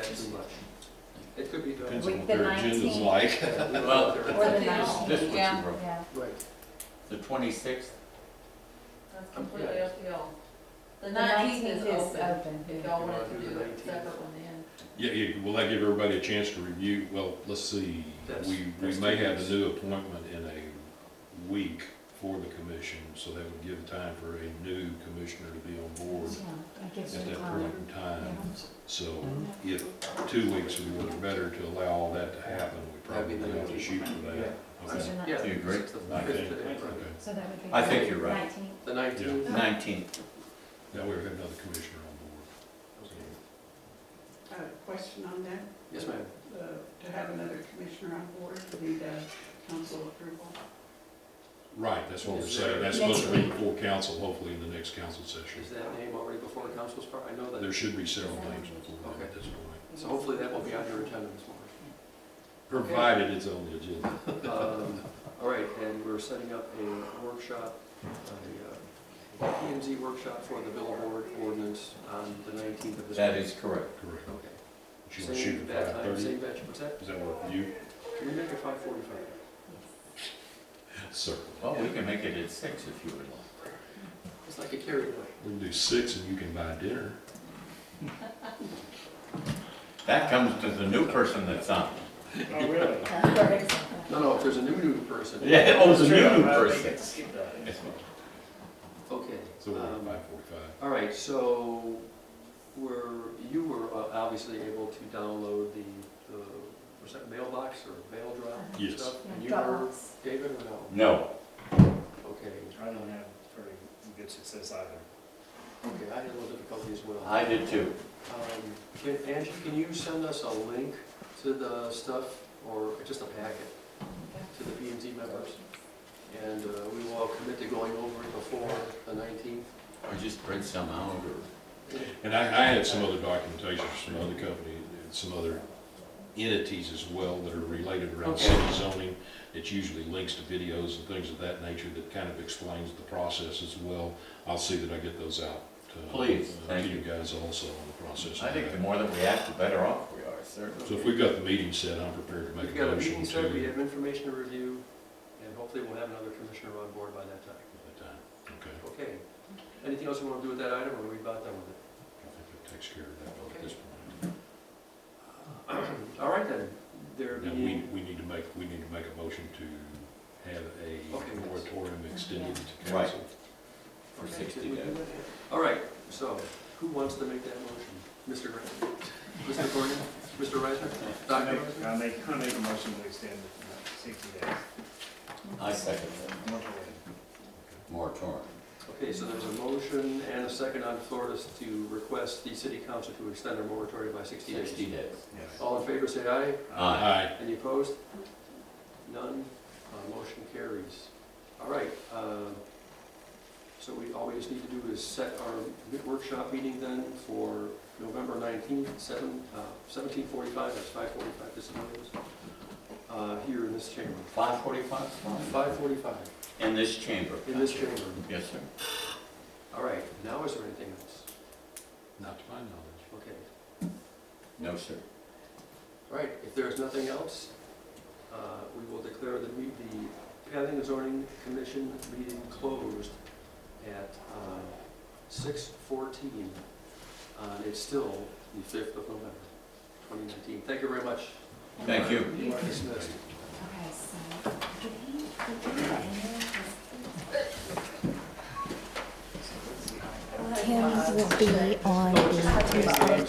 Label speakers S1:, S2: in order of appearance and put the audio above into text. S1: too much.
S2: It could be done.
S3: Depends
S4: Week
S3: on what
S4: the
S3: their agenda's
S4: 19th.
S3: like.
S5: Well,
S4: Or the ninth.
S5: This one,
S6: Yeah.
S5: you wrote.
S4: Yeah,
S2: Right.
S5: the twenty-sixth,
S6: That's completely
S2: yeah.
S6: up to y'all. The
S4: the
S6: nineteenth is
S4: nineteenth is
S6: open,
S4: open.
S6: if y'all
S2: You wanna
S6: wanted to
S2: do
S6: do
S2: the
S6: a
S2: 19th?
S6: separate one then.
S3: Yeah, yeah, will that give everybody a chance to review? Well, let's see.
S2: That's-
S3: We, we
S5: that's
S3: may
S5: two
S3: have
S5: weeks.
S3: a new appointment in a week for the commission, so that would give time for a new commissioner to be on board
S4: Yeah, it gives
S3: at
S4: you
S3: that
S4: time.
S3: point in time. So if two weeks would work better to allow all that to happen, we probably
S2: That'd be the
S3: ought to shoot for that.
S4: So
S3: Okay.
S4: you're not-
S2: Yeah.
S5: Do you agree?
S2: It's the
S3: Okay.
S2: fifth today, right.
S3: Okay.
S4: So that would be.
S5: I think you're right.
S4: Nineteenth.
S2: The nineteenth.
S5: nineteenth.
S3: That way we have another commissioner on
S7: I have a question on that.
S2: Yes, ma'am.
S7: Uh, To have another commissioner on board, we need uh, council approval.
S3: board. Right, that's what we're
S2: Is
S3: saying.
S2: there-
S3: That's supposed to be before council, hopefully in the next council session.
S2: Is that name already before the council's part? I know that.
S3: There should be several names before that at this point.
S2: So hopefully that will be on your agenda this morning.
S3: Provided it's on the agenda.
S2: Um, All right, and we're setting up a workshop, a uh, PMZ workshop for the billboard ordinance on the 19th of this month.
S5: That is correct.
S3: Correct.
S2: Okay.
S3: She
S2: Same
S3: was shooting
S2: bat
S3: five
S2: time,
S3: thirty.
S2: same batch, what's that?
S3: Does that work for you?
S2: Can we make it 5:45?
S3: Sir.
S5: Well, we can make it at six if you would like.
S2: It's like a carryover.
S3: We can do six and you can buy dinner.
S5: That comes to the new person that's on.
S8: Oh, really?
S2: No, no, if there's a new, new person.
S5: Yeah, oh, the new new
S8: I think
S5: person.
S8: it's skip that.
S2: Okay.
S3: So we're at
S2: um,
S3: five forty-five.
S2: All right, so were, you were uh, obviously able to download the, the, was that mailbox or mail drop
S3: Yes.
S2: stuff? And you were,
S4: Dropbox.
S2: David, or no?
S5: No,
S2: Okay,
S8: I don't have very good success either.
S2: okay, I had a little difficulty as well.
S5: I did too.
S2: Um, Can, Angie, can you send us a link to the stuff, or just a packet, to the P and Z members? And uh, we will commit to going over it before the nineteenth.
S5: Or just print some out or,
S3: And I, I had some other documentation from other company, some other entities as well that are related around
S2: Okay.
S3: city zoning. It usually links to videos and things of that nature that kind of explains the process as well. I'll see that I get those out. uh,
S5: Please,
S3: uh,
S5: thank
S3: To you
S5: you.
S3: guys also on the process. of
S5: I think
S3: that.
S5: the more that we act, the better off we are, sir.
S3: So if we've got the meeting set, I'm prepared to
S2: We've
S3: make a
S2: got a
S3: motion to.
S2: meeting set, we have information to review, and hopefully we'll have another commissioner on board by that time.
S3: At that time. Okay,
S2: Okay. Anything else we want to do with that item, or are we about done with it?
S3: I think that takes care of that at this point.
S2: All right then, there
S3: Now, we,
S2: being,
S3: we need to make, we need to make a motion to have
S2: Okay.
S3: a moratorium extended to
S5: Right.
S3: council.
S5: For
S2: Okay,
S5: 60
S2: did we do
S5: days.
S2: that? All right, so who wants to make that motion? Mr. Grant? Mr. Corrigan? Mr.
S8: I
S2: Reisner? Dr.
S8: make,
S2: Reisner?
S8: I make, I make a motion to extend it to sixty days.
S5: I second that.
S8: Moratorium.
S5: Moratorium.
S2: Okay, so there's a motion and a second on the floor to- to request the city council to extend their moratorium by 60
S5: Sixty
S2: days.
S5: days.
S8: Yes.
S2: All in favor, say aye.
S5: Aye.
S3: Aye.
S2: Any opposed? None? Uh, Motion carries. All right, uh, so we, all we just need to do is set our mid- workshop meeting then for November 19th, 7, uh, 1745, that's 545, this is what it is, uh, here in this chamber.
S5: Five forty-five, fine.
S2: 545,
S5: In this chamber.
S2: in this chamber.
S5: Yes, sir.
S2: All right, now is there anything else?
S3: Not to my knowledge.
S2: Okay.
S5: No, sir.
S2: All right, if there is nothing else, uh, we will declare the me- the Planning and Zoning Commission meeting closed at uh, 6:14. Uh, It's still the 5th of November, 2019. Thank you very much.
S5: Thank you.
S2: You are dismissed.
S4: Okay, so. Tim's will be on the